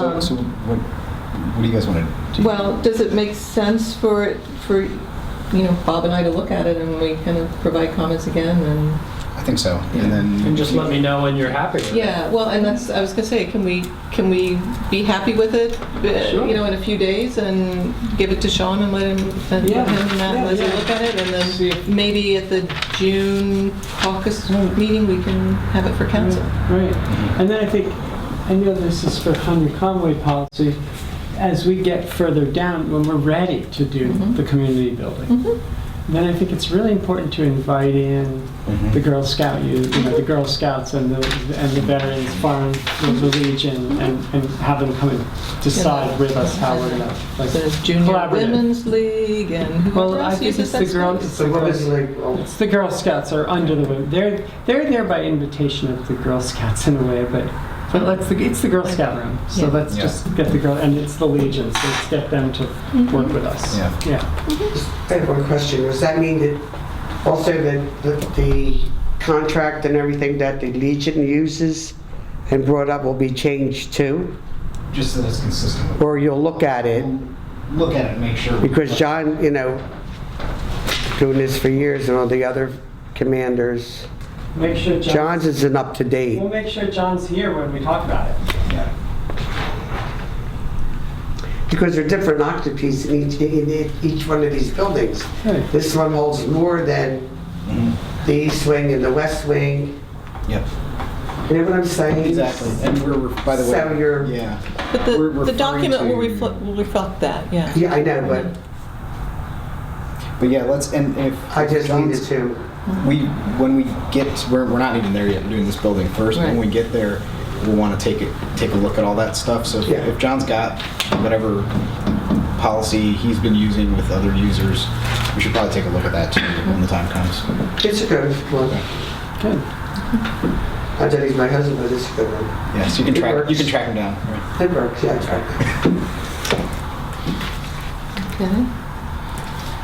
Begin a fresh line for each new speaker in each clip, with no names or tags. So, so what, what do you guys want to do?
Well, does it make sense for, for, you know, Bob and I to look at it and we kind of provide comments again and,
I think so, and then.
And just let me know when you're happy with it.
yeah, well, and that's, I was gonna say, can we, can we be happy with it? uh,
Sure.
You know, in a few days and give it to Sean and let him, and
Yeah,
let him and Matt
yeah,
and Leslie
yeah.
look at it and
See
then
if-
maybe at the June caucus meeting, we can have it for council.
Right, and then I think, I know this is for Henry Conway policy, as we get further down, when we're ready to do
Mhm.
the community building, then I think it's really important to invite in
Mhm.
the Girl Scout, you you know, the Girl Scouts and the, and the veterans, foreign, the Legion, and, and have them come and decide with us how we're gonna, like,
The Junior
Collaborative.
Women's League and whoever
well, I
else
think
uses
it's
that
the
space.
Girl, it's the
So what
Girl
is like, oh,
It's the Girl Scouts are under the women. They're they're there by invitation of the Girl Scouts in a way, but but let's it's the Girl Scout room. So
Yeah.
let's
Yeah.
just get the girl and it's the Legion. So let's get them to work with us.
Yeah.
Yeah.
just I have one question. Does that mean that also that the, the contract and everything that the Legion uses and brought up will be changed too?
Just so that's consistent with.
Or you'll look at it?
Look at it, and make sure.
Because John, you know, doing this for years and all the other commanders,
Make sure John,
John's isn't up to date.
We'll make sure John's here when we talk about it.
Yeah.
Because there are different octopus in each, in each one of these buildings.
Right.
This one holds more than
Mhm.
the east wing and the west wing.
Yep.
You know what I'm saying?
Exactly, and we're, by the way.
So you're-
Yeah,
But
We're
the, the
referring
document will
to-
reflect, will reflect that, yeah.
Yeah, I know, but
but yeah, let's, and if.
I just needed
John's-
to.
We, when we get, we're, we're not even there yet, we're doing this building first, when
Right.
we get there, we'll want to take it, take a look at all that stuff, so if-
Yeah.
if John's got whatever policy he's been using with other users, we should probably take a look at that too, when the time comes.
It's a good one.
Good.
I thought he's my husband, but it's a good one.
Yeah, so you can
It
track, you
works.
can track him down.
It works, yeah, it's right.
Okay.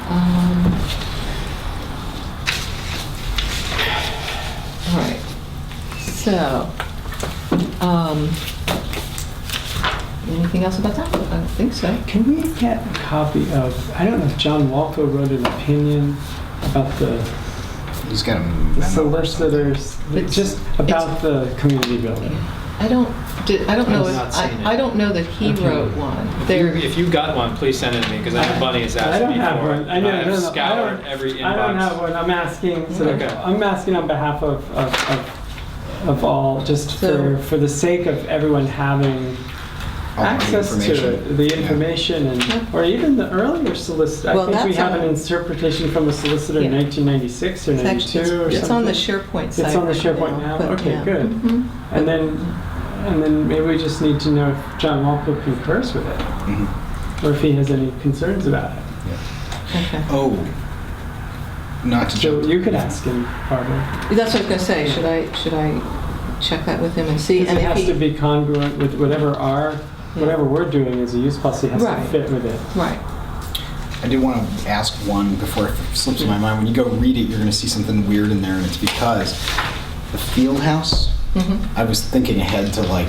Um, All right, so, um, anything else about that? I don't think so.
Can we get a copy of? I don't know if John Walco wrote an opinion about the,
He's got a
the
memo.
solicitors,
It's-
just about the community building.
I don't, did- I don't know,
I've
if-
not seen it.
I I don't know that he
Okay.
wrote one.
You-
There,
If you've got one, please send it to me, because I know Bunny has
I
asked
don't
me
have
for
one.
it.
I know,
I
no,
have
no, I
scoured
don't-
every
I don't have
inbox.
one. I'm asking. So
Okay.
I'm asking on behalf of, of, of, of all, just
So-
for, for the sake of everyone having
all the
access to it, the
Yeah.
information,
Yeah.
and or even the earlier solicitor.
Well,
I think we
that's
have
on-
an interpretation from a solicitor in
Yeah.
1996 or
it's
92
actually-
or
it's on the
something.
SharePoint
It's
site.
on the
right
SharePoint now?
but
Okay,
yeah.
good.
Mhm.
and then, and then maybe we just need to know if John Walpole concurs with it,
Mhm.
or if he has any concerns about it.
Okay.
Oh, not to
So
jump.
you could ask him, Barbara.
That's what I was gonna say, should I, should I check that with him and see?
Because
and
it
if
has
he-
to be congruent with whatever our, whatever we're doing as a use policy has to
Right.
fit with it.
Right.
I do want to ask one before it slips my mind. When you go read it, you're going to see something weird in there, and it's because the field house.
Mm-hmm.
I was thinking ahead to like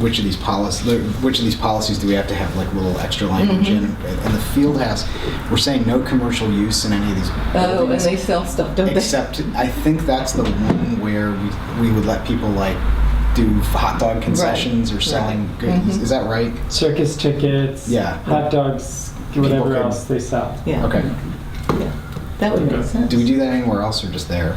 which of these policies, which of these policies do we have to have like little extra language
Mm-hmm.
in? And the field house, we're saying no commercial use in any of these.
Oh, and
buildings,
they sell stuff, don't they?
Except, I think that's the one where we, we would let people like do hot dog concessions or
right.
selling
Mm-hmm.
goodies.
Mhm.
Is that right?
Circus tickets,
Yeah.
hot dogs,
People
whatever
can-
else they sell.
Yeah.
Okay.
Yeah. That would make sense.
Do we do that anywhere else or just there?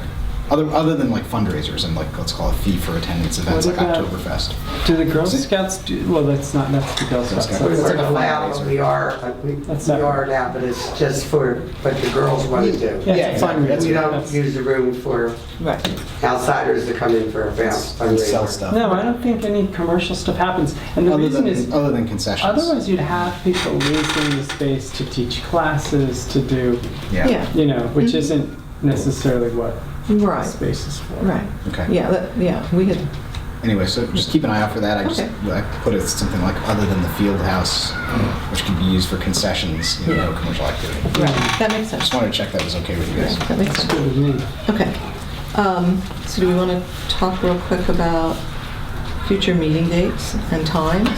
Other, other than like fundraisers and like let's call it fee for attendance events
What
like
about-
Oktoberfest.
Do the Girl
Is it-
Scouts do, well, that's not, that's the Girl
Girl
Scouts.
Scouts.
that's-
like
We're
a
allowed,
fundraiser.
we are, but we
That's
we
separate.
are now, but it's just for what the girls want to do.
Yeah, it's a
exactly. That's-
We
fundraiser.
don't
That's-
use the room for
Right.
outsiders to come in for a fun-
And sell
fundraiser.
stuff.
No, I don't think any commercial stuff happens. And the
Other
reason
than,
is,
other than concessions.
otherwise you'd have people losing the space to teach classes, to do,
Yeah.
Yeah.
you know, which
Mhm.
isn't necessarily what the
Right.
space is for.
Right.
Okay.
Yeah. That, yeah. We had.
Anyway, so just keep an eye out for that. I just
Okay.
I put it something like other than the field house, which could be used for concessions, you know, no commercial activity.
Right. That makes sense.
Just wanted to check that was okay with you guys.
Right, That makes
It's
sense.
good with me.
Okay. Um, so do we want to talk real quick about future meeting dates and times.